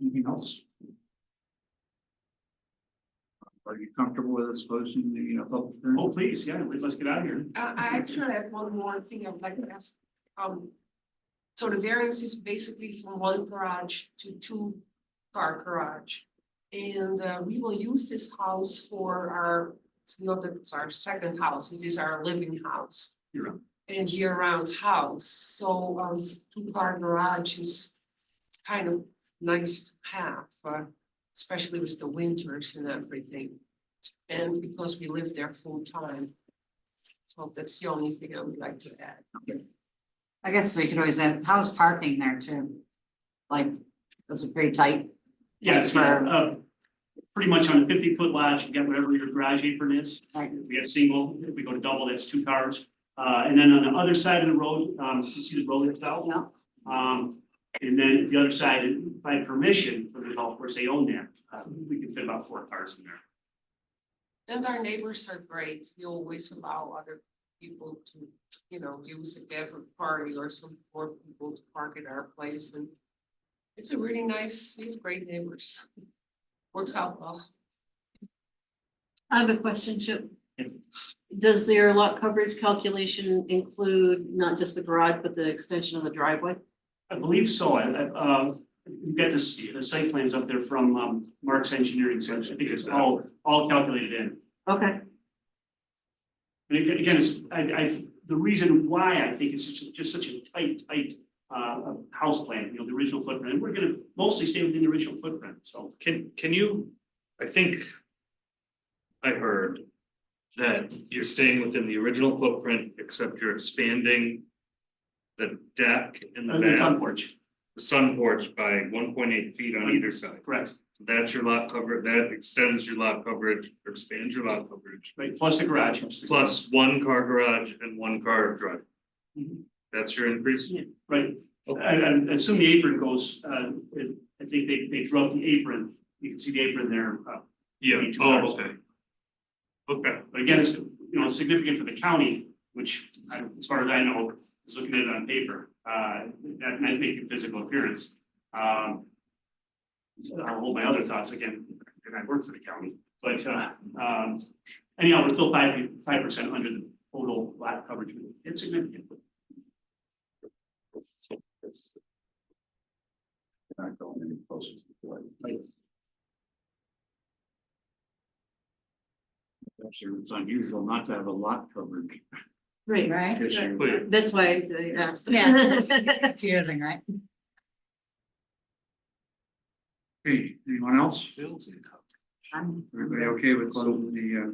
Anything else? Are you comfortable with us closing the uh, public hearing? Oh, please, yeah, let- let's get out of here. Uh, I, I actually have one more thing I would like to ask. Um, so the variance is basically from one garage to two car garage. And uh, we will use this house for our, it's not that it's our second house, it is our living house. Year-round. And year-round house, so um, two car garage is kind of nice to have, uh, especially with the winters and everything. And because we live there full time. So that's the only thing I would like to add. I guess we could always add, how's parking there too? Like, those are pretty tight. Yes, Sure. uh, pretty much on a fifty foot lot, you get whatever your garage apron is. Right. If we get single, if we go to double, that's two cars. Uh, and then on the other side of the road, um, you see the road itself? No. Um, and then the other side, by permission from the golf course, they own that. Uh, we can fit about four cars in there. And our neighbors are great. We always allow other people to, you know, use it. They have a party or some poor people to park at our place and it's a really nice, we have great neighbors. Works out well. I have a question, Chip. Yeah. Does their lot coverage calculation include not just the garage, but the extension of the driveway? I believe so. I, I, uh, you got this, the site plans up there from, um, Mark's Engineering, so I think it's all, all calculated in. Okay, And aga- again, it's, I, I, the reason why I think it's such, a- just such a tight, tight, uh, house plan, you know, the original footprint, and we're gonna mostly stay within the original footprint, so. Can, can you, I think. I heard that you're staying within the original footprint, except you're expanding. The deck in the And the front back, porch, the sun porch by one point eight feet on either side. correct, So That's your lot cover, that extends your lot coverage, or expands your lot coverage, right, plus the garage. plus one car garage and one car drive. Mm-hmm. Mhm. That's your increase? Yeah. Right, I, I assume the apron goes, uh, it- I think they, they drove the apron, you can see the apron there, uh, Yeah, Maybe two oh, cars. okay. Okay, but again, it's, you know, significant for the county, which, I- as far as I know, is looking at it on paper, uh, that might make a physical appearance. Um. I'll hold my other thoughts again, and I work for the county, but, uh, um, anyhow, we're still five, five percent under the total lot coverage, it's significant. Not going any closer to the light. Actually, it's unusual not to have a lot coverage great. Right? issue. clear, That's why I asked. Yeah. It's confusing, right? Hey, anyone else? I'm- Everybody okay with closing the uh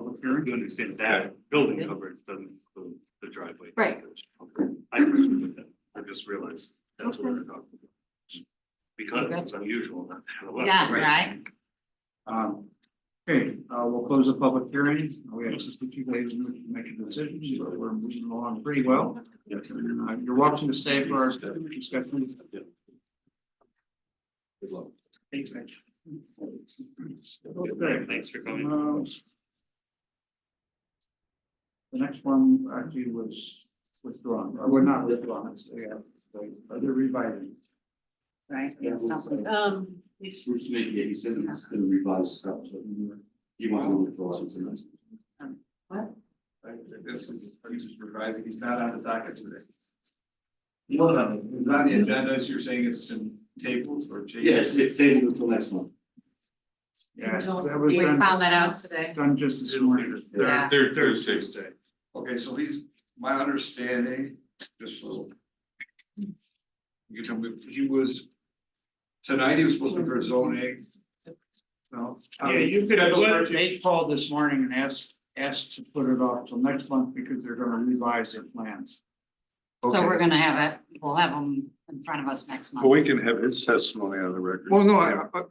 public hearing? you understand that building coverage doesn't include the driveway. Right. Okay. I just, remembered that. I just realized that's what we're talking about. Because it's unusual not to have a lot. Yeah, right? Um, okay, uh, we'll close the public hearing. We have sixty-two days to make a decision, so we're moving along pretty well. And, uh, You're welcome to stay for our discussion. Thanks, Mike. Okay. Thanks for coming. Um, The next one actually was withdrawn, or well, not withdrawn, it's, yeah, the other revising. Right, yeah, something. Um, Bruce Lee, yeah, he said it's gonna revise stuff, so he wants to withdraw it tonight. What? This is, he's just revising, he's not on the docket today. Well, not the agenda, so you're saying it's been tabled or changed? Yes, it's tabled until next month. Yeah, that was We done, found that out today. done just this morning. Yeah. Third, Thursday. Okay, so he's, my understanding, just a little. You can tell me, he was, tonight he was supposed to be for zoning. No, Uh, I mean, you could have, they called this morning and asked, asked to put it off till next month because they're gonna revise their plans. So Okay. we're gonna have it, we'll have them in front of us next Well, month. we can have his testimony on the record. Well, no, I, I-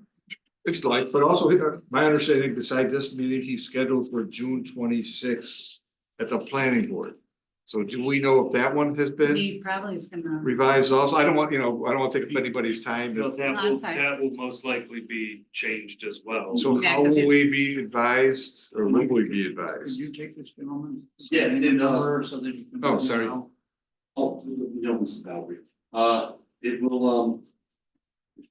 if you like, but also uh, my understanding beside this meeting, he's scheduled for June twenty-sixth at the planning board. So do we know if that one has been He probably is gonna. revised also? I don't want, you know, I don't want to take up anybody's time. No, if- that will, Contact. that will most likely be changed as well. So Yeah, how 'cause will he's- we be advised or will we be Could advised? you take this gentleman? Yes, and, uh, Number So that you can. Oh, sorry. Oh, no, Mrs. Valerie, uh, it will, um,